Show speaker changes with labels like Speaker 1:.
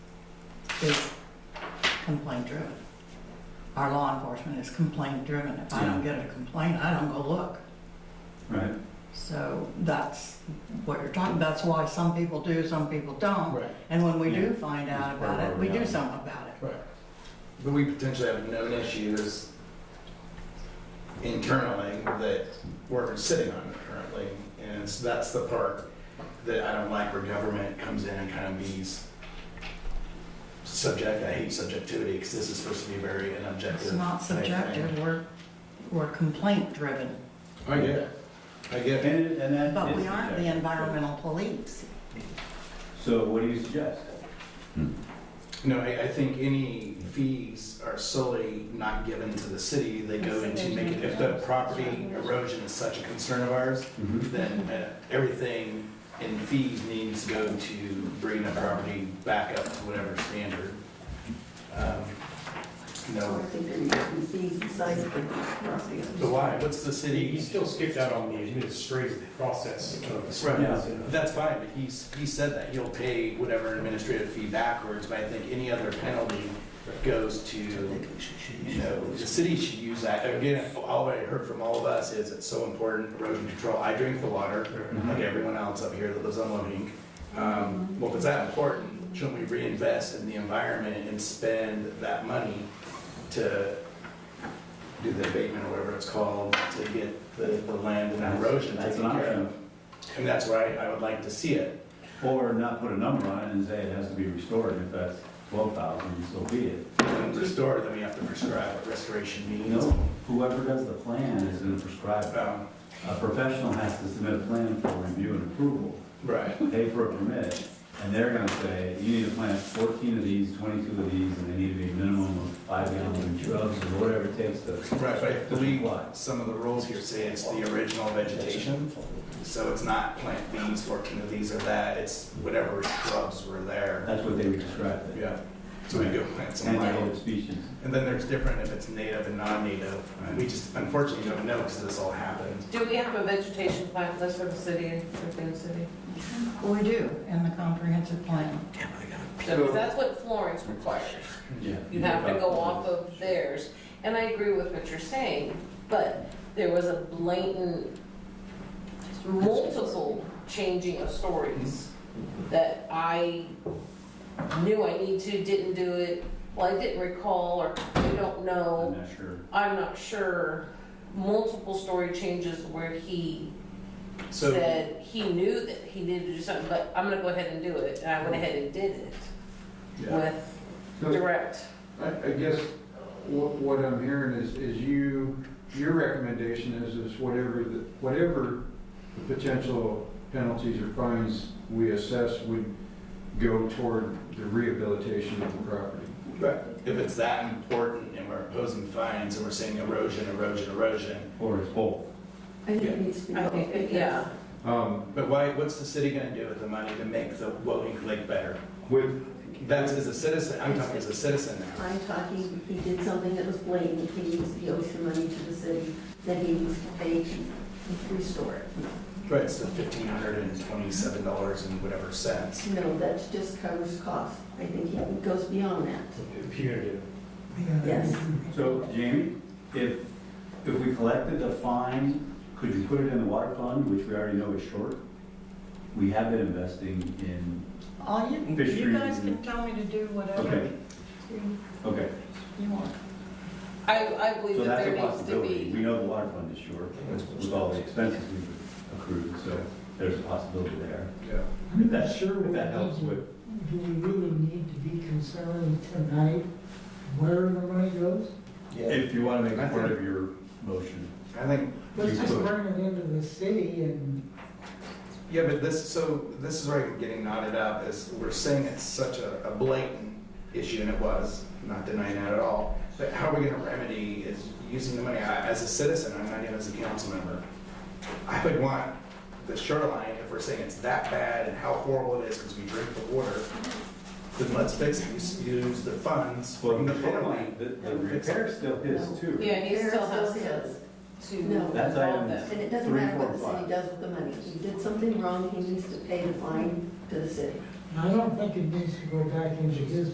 Speaker 1: is complaint driven. Our law enforcement is complaint driven. If I don't get a complaint, I don't go look.
Speaker 2: Right.
Speaker 1: So that's what you're talking, that's why some people do, some people don't.
Speaker 3: Right,
Speaker 1: And when we do
Speaker 2: Yeah.
Speaker 1: find out
Speaker 2: That's part
Speaker 1: about
Speaker 2: of
Speaker 1: it,
Speaker 2: our
Speaker 1: we do
Speaker 2: reality.
Speaker 1: something about it.
Speaker 3: right. But we potentially have known issues internally that we're sitting on currently. And so that's the part that I don't like where government comes in and kind of bees subject, I hate subjectivity because this is supposed to be very an objective.
Speaker 1: It's not
Speaker 3: type thing.
Speaker 1: subjective, we're, we're complaint driven,
Speaker 3: I get it. I get it.
Speaker 2: And, it- and that is.
Speaker 1: but we aren't the
Speaker 2: subjective.
Speaker 1: environmental police.
Speaker 2: So what do you suggest?
Speaker 3: No, I, I think any fees are solely not given to the city. They go into making, if the property erosion is such a concern of ours, then uh, everything in fees needs to go to bringing the property back up to whatever standard. Um,
Speaker 4: I
Speaker 3: No,
Speaker 4: think they're using fees besides the property.
Speaker 3: so why, what's the
Speaker 5: You
Speaker 3: city?
Speaker 5: still skipped out on the administrative process of.
Speaker 3: Right.
Speaker 2: Yeah.
Speaker 3: That's fine, but he's, he said that he'll pay whatever administrative fee backwards, but I think any other penalty goes to you know, the city should use that. Again, all I heard from all of us is it's so important, erosion control. I drink the water,
Speaker 2: Mm-hmm.
Speaker 3: like everyone else up here that lives on Loading. Um, well, if it's that important, shouldn't we reinvest in the environment and spend that money to do the abatement or whatever it's called, to get the, the land and erosion
Speaker 2: That's
Speaker 3: taken
Speaker 2: an
Speaker 3: care of?
Speaker 2: option.
Speaker 3: And that's where I, I would like to see it.
Speaker 2: Or not put a number on it and say it has to be restored, if that's twelve thousand, so be it.
Speaker 3: And restore, then we have to prescribe what restoration means.
Speaker 2: No, whoever does the plan is gonna prescribe it.
Speaker 3: Um,
Speaker 2: A professional has to submit a plan for review and approval,
Speaker 3: right.
Speaker 2: pay for a permit, and they're gonna say, you need to plant fourteen of these, twenty-two of these, and they need to be a minimum of five gallons of drugs, or whatever it takes to.
Speaker 3: Right, but I believe
Speaker 2: Why?
Speaker 3: some of the rules here say it's the original vegetation, so it's not plant these, fourteen of these or that, it's whatever shrubs were there.
Speaker 2: That's what they would describe it.
Speaker 3: Yeah, so we go plant some
Speaker 2: And
Speaker 3: wild.
Speaker 2: native species.
Speaker 3: And then there's different if it's native and non-native, and we just unfortunately don't know because this all happened.
Speaker 6: Do we have a vegetation plan list for the city and for the city?
Speaker 1: We do, in the comprehensive plan.
Speaker 6: So that's what Florence requires.
Speaker 2: Yeah.
Speaker 6: You have to go off of theirs. And I agree with what you're saying, but there was a blatant, multiple changing of stories that I knew I need to, didn't do it, well, I didn't recall, or I don't know.
Speaker 2: I'm not sure.
Speaker 6: I'm not sure, multiple story changes where he
Speaker 3: So-
Speaker 6: said he knew that he needed to do something, but I'm gonna go ahead and do it, and I went ahead and did it
Speaker 3: Yeah.
Speaker 6: with
Speaker 7: So
Speaker 6: direct.
Speaker 7: I, I guess what, what I'm hearing is, is you, your recommendation is, is whatever, the whatever the potential penalties or fines we assess would go toward the rehabilitation of the property.
Speaker 3: But if it's that important and we're imposing fines and we're saying erosion, erosion, erosion,
Speaker 2: Or it's both.
Speaker 4: I think it needs to be.
Speaker 6: I think, yeah,
Speaker 7: Um,
Speaker 3: but why, what's the city gonna do with the money to make the Woking Lake better?
Speaker 7: with,
Speaker 3: That's as a citizen, I'm talking as a citizen now.
Speaker 4: I'm talking, he did something that was blatant, he needs the ocean money to the city, that he needs to pay to restore it.
Speaker 3: Right, so fifteen hundred and twenty-seven dollars and whatever cents.
Speaker 4: No, that just covers costs, I think he goes beyond that,
Speaker 5: Punitive.
Speaker 4: yes.
Speaker 2: So Jamie, if, if we collected the fine, could you put it in the water fund, which we already know is short? We have been investing in,
Speaker 1: All you, you
Speaker 2: Fisheries
Speaker 1: guys can
Speaker 2: and-
Speaker 1: tell me to do whatever
Speaker 2: Okay. okay,
Speaker 1: you want.
Speaker 6: I, I believe
Speaker 2: so
Speaker 6: that
Speaker 2: that's a
Speaker 6: there needs to
Speaker 2: possibility. We
Speaker 6: be,
Speaker 2: know the water fund is short with all the expenses we've accrued, so there's a possibility there.
Speaker 3: Yeah.
Speaker 2: If that, if that helps with,
Speaker 8: Do we really need to be concerned tonight where the money goes?
Speaker 2: if you want to make it part of your motion.
Speaker 3: I think,
Speaker 8: Let's
Speaker 2: You
Speaker 8: just
Speaker 2: could.
Speaker 8: bring it into the city and
Speaker 3: yeah, but this, so this is where I'm getting knotted up, is we're saying it's such a a blatant issue, and it was, not denying that at all. But how are we gonna remedy is using the money, I- as a citizen, I'm not even as a council member. I would want the shoreline, if we're saying it's that bad and how horrible it is because we drink the water, then let's fix it, use, use the funds
Speaker 2: Well,
Speaker 3: from
Speaker 2: the
Speaker 3: the
Speaker 2: repair
Speaker 3: shoreline.
Speaker 2: line, the, the repair's still his too.
Speaker 6: yeah, he still has
Speaker 4: There it
Speaker 6: to,
Speaker 4: still
Speaker 6: to
Speaker 4: No.
Speaker 6: involve
Speaker 2: That's item-
Speaker 6: them.
Speaker 4: And it doesn't
Speaker 2: Three,
Speaker 4: matter what
Speaker 2: four,
Speaker 4: the city
Speaker 2: five.
Speaker 4: does with the money, he did something wrong, he needs to pay the fine to the city.
Speaker 8: I don't think it needs to go back into his